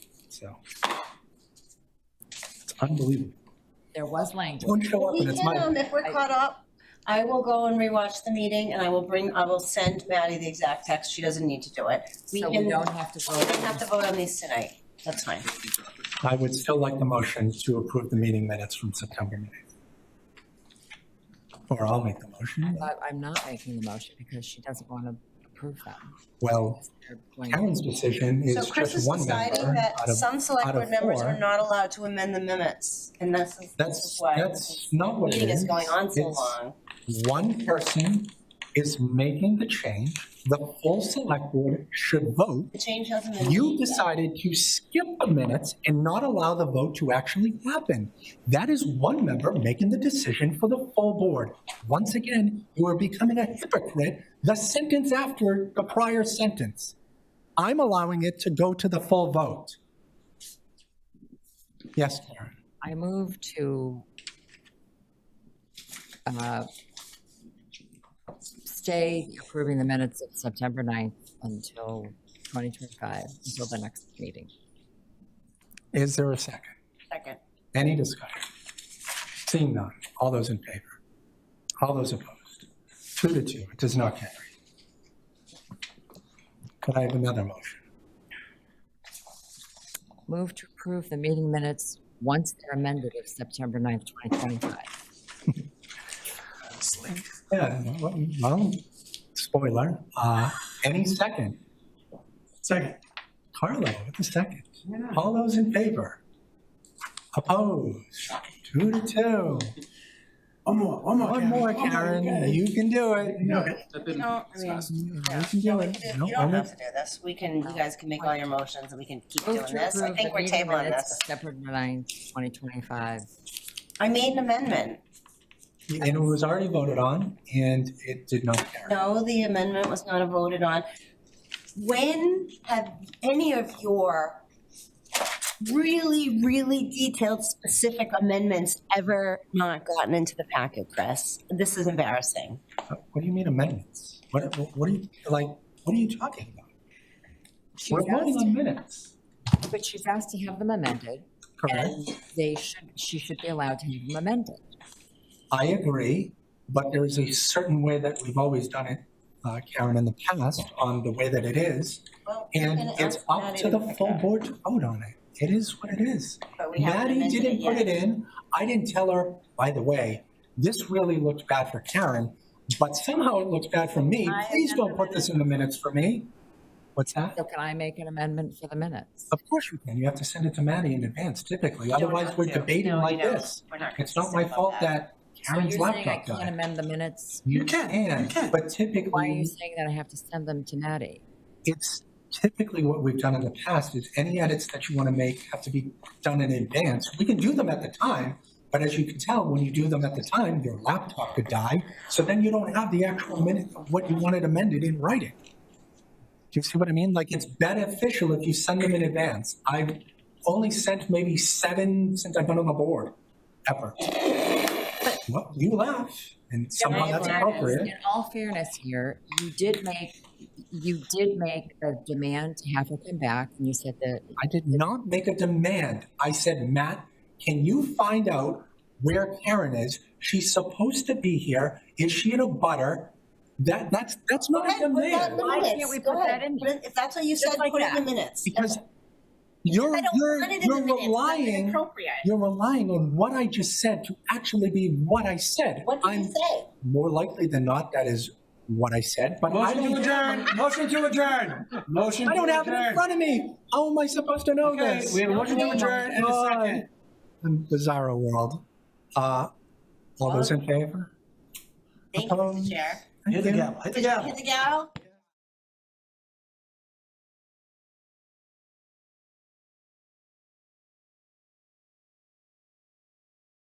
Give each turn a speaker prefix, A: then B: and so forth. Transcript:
A: so. It's unbelievable.
B: There was language.
A: Don't show up
C: We
A: and it's
C: can,
A: my,
C: um, if we're caught up, I will go and rewatch the meeting and I will bring, I will send Maddie the exact text. She doesn't need to do it.
B: So we
C: can-
B: don't have to
C: We don't have
B: vote.
C: to vote on these tonight. That's fine.
A: I would still like the motion to approve the meeting minutes from September 9th. Or I'll make the
B: I
A: motion.
B: thought I'm not making the motion because she doesn't want to approve that.
A: Well,
B: They're going-
A: Karen's decision
C: So
A: is
C: Chris
A: just
C: is
A: one
C: deciding
A: member
C: that
A: out of,
C: some select
A: out of
C: board members are
A: four.
C: not allowed to amend the minutes. And this is, this is
A: that's,
C: why this
A: that's not what it
C: meeting is
A: is.
C: going on so
A: It's-
C: long.
A: one person is making the change, the whole select board should vote.
C: The change hasn't been.
A: You decided to skip the minutes and not allow the vote to actually happen. That is one member making the decision for the full board. Once again, you are becoming a hypocrite, the sentence after the prior sentence. I'm allowing it to go to the full vote. Yes, Karen.
B: I move to uh, stay approving the minutes of September 9th until 2025, until the next meeting.
A: Is there a second?
C: Second.
A: Any discussion? Seeing none, all those in favor? All those opposed? Two to two, it does not carry. Could I have another motion?
B: Move to approve the meeting minutes once they're amended of September 9th, 2025.
A: Yeah, well, spoiler, uh, any second? Second. Carlo with the second. All those in favor? Opposed? Two to two.
D: One more, one more.
A: One more, Karen, you can do it.
D: No,
C: You don't, I mean,
A: You can
C: yeah.
A: do
C: No, we
A: it.
C: can do-
A: No,
C: You
A: I'm
C: don't
A: not-
C: have to do this. We can, you guys can make all your motions and we can keep doing
B: Move to
C: this. I
B: approve the
C: think we're
B: meeting
C: tabling
B: minutes
C: this.
B: of September 9th, 2025.
C: I made an amendment.
A: And it was already voted on, and it did not carry.
C: No, the amendment was not voted on. When have any of your really, really detailed, specific amendments ever not gotten into the packet, Chris? This is embarrassing.
A: What do you mean amendments? What, what are you, like, what are you talking about?
B: She's
A: We're voting
B: asked,
A: on minutes.
B: but she's asked to have them amended,
A: Correct.
B: and they should, she should be allowed to have them amended.
A: I agree, but there is a certain way that we've always done it, uh, Karen, in the past, on the way that it is. And it's up to the full board to vote on it. It is what it is.
C: But we haven't
A: Maddie
C: amended it
A: didn't put it
C: yet.
A: in. I didn't tell her, by the way, this really looks bad for Karen, but somehow it looks bad for me.
C: I have
A: Please don't
C: never
A: put
C: been
A: this in the minutes for me. What's that?
B: So can I make an amendment for the minutes?
A: Of course you can. You have to send it to Maddie in advance typically,
C: You don't
A: otherwise
C: have
A: we're
C: to.
A: debating
C: No, you
A: like
C: don't.
A: this.
C: We're not
A: It's not
C: consistent
A: my
C: about
A: fault that
B: So you're
A: Karen's
B: saying I
A: laptop
B: can't
A: died.
B: amend the minutes?
A: You
D: You can, you
A: can, but
D: can.
B: Why are you
A: typically,
B: saying that I have to send them to Maddie?
A: it's typically what we've done in the past is any edits that you want to make have to be done in advance. We can do them at the time, but as you can tell, when you do them at the time, your laptop could die. So then you don't have the actual minute of what you wanted amended in writing. Do you see what I mean? Like, it's beneficial if you send them in advance. I've only sent maybe seven since I've been on the board, ever. Well, you laugh, and somehow
B: In all
A: that's
B: fairness-
A: appropriate.
B: In all fairness here, you did make, you did make a demand to have her come back, and you said that
A: I did not make a demand. I said, Matt, can you find out where Karen is? She's supposed to be here. Is she in a butter? That, that's, that's not a
C: Put that in
A: demand.
C: the
B: Why can't we
C: minutes.
B: put
C: Go ahead.
B: that in
C: Put it- If that's what you
B: Just
C: said,
B: like
C: put it in the
B: that.
C: minutes.
A: Because you're,
C: I don't
A: you're,
C: want it in the
A: you're
C: minutes. That's
A: relying,
C: inappropriate.
A: you're relying on what I just said to actually be what I said.
C: What did you
A: I'm
C: say?
A: more likely than not, that is what I said, but I
D: Motion to
A: don't,
D: adjourn, motion to adjourn, motion
A: I
D: to
A: don't have it in
D: adjourn.
A: front of me. How am I supposed to know
D: Okay,
A: this?
D: we have a motion to adjourn and a second.
A: in bizarro world. Uh, all those in favor?
C: Thank you,
A: Um,
C: Mr. Chair.
D: Hit the gavel, hit the gavel.
C: Hit the gavel?